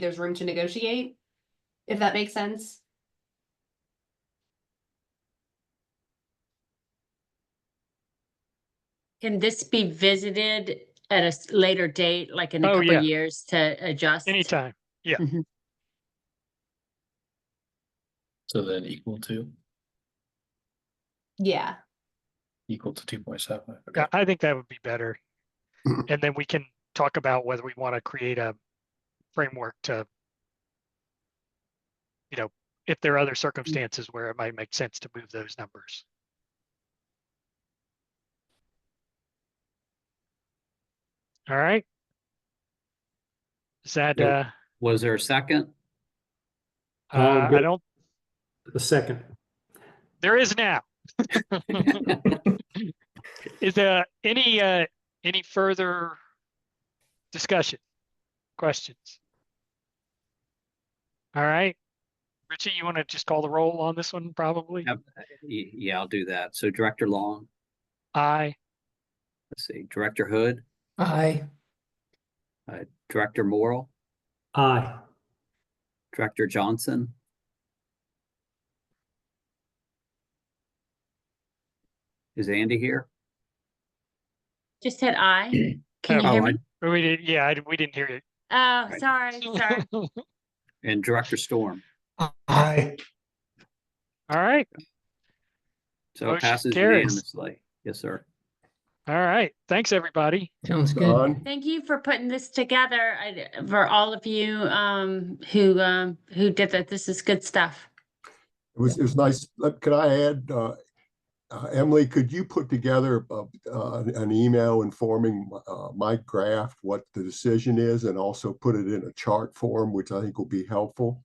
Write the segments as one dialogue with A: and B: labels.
A: there's room to negotiate, if that makes sense.
B: Can this be visited at a s- later date, like in a
C: Oh,
B: couple
C: yeah.
B: of years to adjust?
C: Anytime.
D: So then equal to,
A: Yeah,
D: equal to two point seven.
C: Yeah, I think that would be better. And then we can talk about whether we want to create a framework to, you know, if there are other circumstances where it might make sense to move those numbers. All right. Is that, uh,
E: Yeah. Was there a second?
F: Um,
C: uh, I
F: good.
C: don't,
F: The second.
C: there is now. Is there any, uh, any further discussion, questions? All right. Richie, you want to just call the roll on this one, probably?
E: Yep. Y- Yeah, I'll do that. So Director Long,
C: Aye.
E: let's see, Director Hood, Uh,
D: Aye.
E: Director Morrell,
F: Aye.
E: Director Johnson. Is Andy here?
B: Just said I. Can you
C: Oh,
B: hear
E: I-
B: me?
C: But We did, yeah, I, we didn't hear you.
B: Oh, sorry, sorry.
C: All
E: And Director Storm.
F: Aye.
C: right,
E: So it
C: Motion
E: passes
C: carries.
E: unanimously. Yes, sir.
C: all right. Thanks, everybody.
G: Sounds good.
D: Don,
B: Thank you for putting this together, I- for all of you um, who, um, who did that. This is good stuff.
G: It was, it was nice. Uh, Could I add, uh, uh, Emily, could you put together uh, uh, an email informing uh, Mike Graff what the decision is and also put it in a chart form, which I think will be helpful?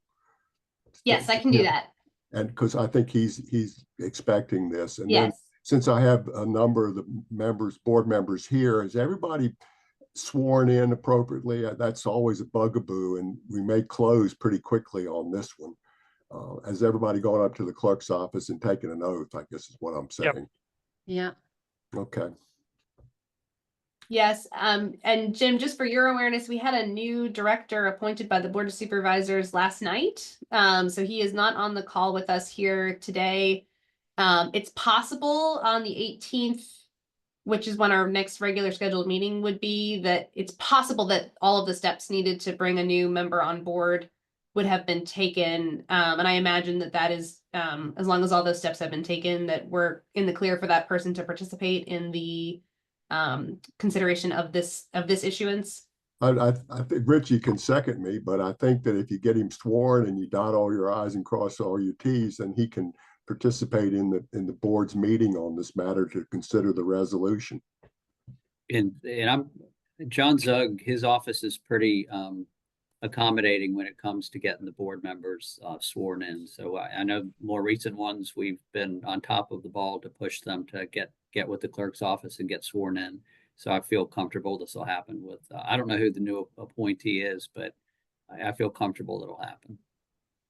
A: yes, I can do
G: Yeah.
A: that.
G: And because I think he's, he's expecting this. And then
A: Yes.
G: since I have a number of the members, board members here, is everybody sworn in appropriately? Uh, That's always a bugaboo and we may close pretty quickly on this one. Uh, has everybody gone up to the clerk's office and taken an oath, I guess is what I'm
C: Yep.
G: saying.
B: Yeah.
G: Okay.
A: Yes, um, and Jim, just for your awareness, we had a new director appointed by the Board of Supervisors last night. Um, so he is not on the call with us here today. Um, it's possible on the eighteenth, which is when our next regular scheduled meeting would be, that it's possible that all of the steps needed to bring a new member on board would have been taken. Um, and I imagine that that is, um, as long as all those steps have been taken, that we're in the clear for that person to participate in the um, consideration of this, of this issuance.
G: I, I, I think Richie can second me, but I think that if you get him sworn and you dot all your i's and cross all your t's, then he can participate in the, in the board's meeting on this matter to consider the resolution.
E: And, and I'm, John Zug, his office is pretty, um, accommodating when it comes to getting the board members, uh, sworn in. So I, I know more recent ones, we've been on top of the ball to push them to get, get with the clerk's office and get sworn in. So I feel comfortable this will happen with, uh, I don't know who the new appointee is, but I, I feel comfortable that'll happen.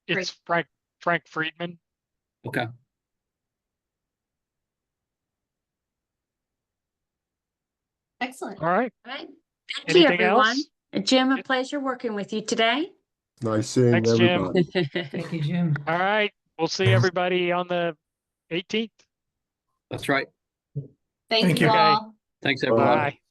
A: Great.
C: It's Frank, Frank Friedman.
E: Okay.
A: Excellent.
C: All right.
B: All right. Thank you,
C: Anything
B: everyone.
C: else?
B: Jim,
C: Yeah.
B: a pleasure working with you today.
G: Nice seeing
C: Thanks, Jim.
G: everybody.
B: Thank
D: you, Jim.
C: All right. We'll see everybody on the eighteenth.
E: That's right.
A: Thank you
C: you, guys.
A: all.
E: Thanks, everyone.
C: Bye.